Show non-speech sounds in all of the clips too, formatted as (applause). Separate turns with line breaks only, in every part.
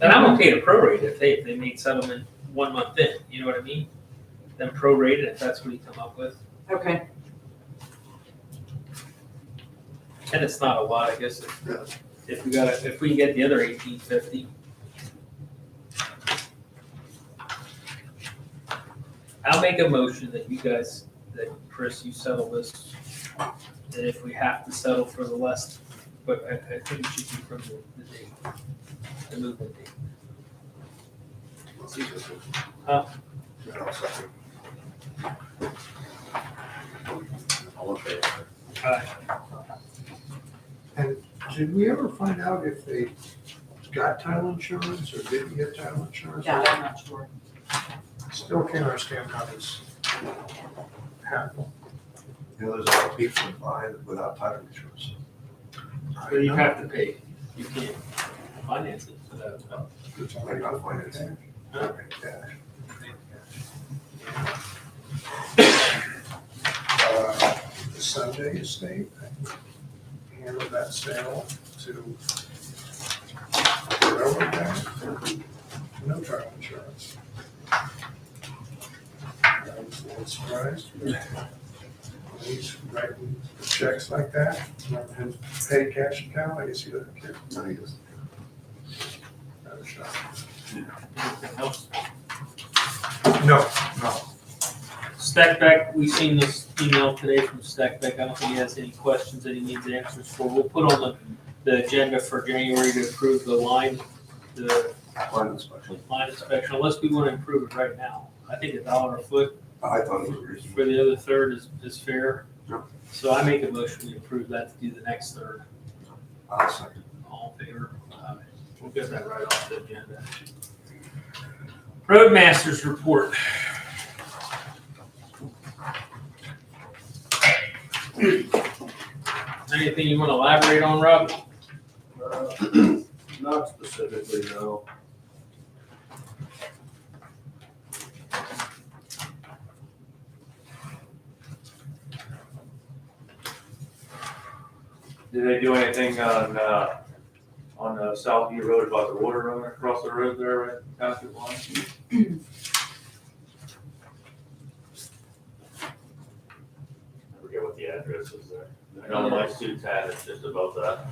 And I'm okay to prorate if they, if they made settlement one month in, you know what I mean? Then prorate it if that's what you come up with.
Okay,
And it's not a lot, I guess, if, if we got, if we get the other eighteen fifty. I'll make a motion that you guys, that Chris, you settle this. And if we have to settle for the less, but I, I think it should be from the, the date, the movement date.
Uh,
Huh?
All in favor?
Did we ever find out if they got title insurance or didn't get title insurance?
yeah, I'm not sure.
Still can't understand how this happened. You know, there's a lot of people that buy without title insurance.
So you have to pay, you can't finance it without.
Somebody got financing.
Huh?
Uh, The Sunday estate, I handled that sale to the railroad guy. No title insurance. I was a little surprised. He's writing checks like that, not him pay cash account, I guess he doesn't care.
No, he doesn't.
I was shocked.
Anything else?
No, no.
Stackback, we've seen this email today from Stackback. I don't think he has any questions that he needs answers for. We'll put on the, the agenda for January to approve the line, the
Line inspection.
line inspection, unless we want to improve it right now. I think a dollar a foot
I thought it was reasonable.
for the other third is, is fair.
Yep.
So I make a motion to approve that to do the next third.
I'll second.
All in favor? Aye. We'll get that right off the agenda. Roadmasters report. Anything you want to elaborate on, Rob?
Uh, (clears throat) Not specifically, no.
Did they do anything on, uh, on uh, Southview Road about the water running across the road there, right,
Uh,
past your line? I forget what the address is there. I know my suits had it just about that.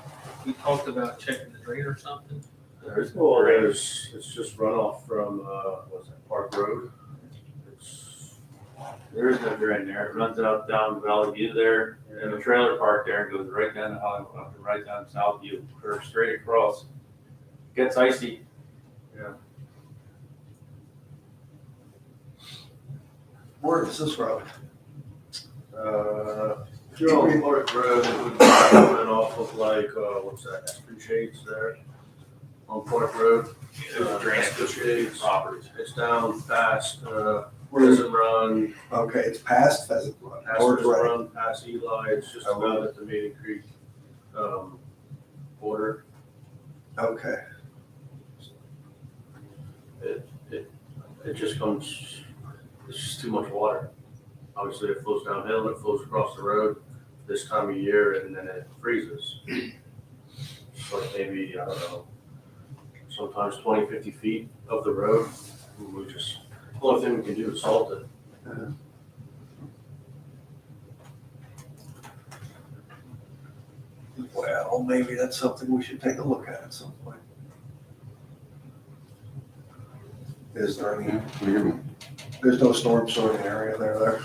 We talked about checking the drain or something.
There's, well, there's, it's just runoff from, uh, what's that, Park Road? It's,
There is no drain there. It runs out down Valley View there, and the trailer park there, and goes right down to Hollywood, up and right down Southview, curves straight across. Gets icy.
where is this road? Uh, Joe Park Road, it would be coming off of like, uh, what's that, Aspen Shades there? On Park Road,
There's drain that goes through the property.
it's down past, uh, Prison Run,
Okay, it's past Pheasant Run.
past
Or
Prison
direct.
Run, past Eli, it's just
Oh,
about at the Maiden Creek, um, border.
Okay,
It, it, it just comes, it's just too much water. Obviously, it flows downhill, it flows across the road this time of year, and then it freezes. It's like maybe, I don't know, sometimes 20, 50 feet of the road, and we just, only thing we can do is salt it.
well, maybe that's something we should take a look at at some point. Is there any, there's no storm sort of area there, there?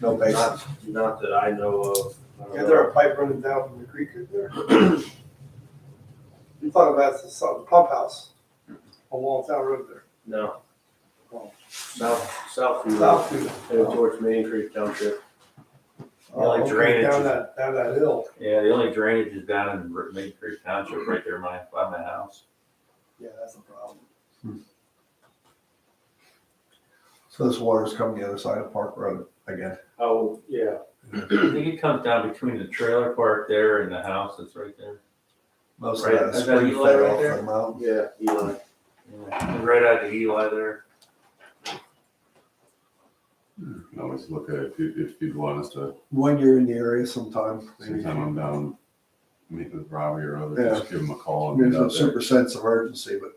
No basin?
Not, not that I know of. I don't
Is
know.
there a pipe running down from the creek in
(clears throat)
there? You thought about the some pump house on Walltown Road there,
No.
Well-
South, south,
south
of-
to,
uh, towards Main Creek Township.
like drainage.
down that, down that hill.
Yeah, the only drainage is down in R- Main Creek Township, right there my, by my house.
Yeah, that's a problem.
Hmm. So this water's coming the other side of Park Road again?
Oh, yeah.
I think it comes down between the trailer park there and the house that's right there.
Most of
Right,
that is
is that
spring
Eli
fed
right
off
there?
the mountain.
Yeah, Eli.
Yeah, Right out of Eli there.
You can always look at it if you, if you'd want us to,
When you're in the area sometime, maybe
sometime I'm down, meet with Robbie or
Yeah.
others, just give him a call and
there's
get
a
out there.
super sense of urgency, but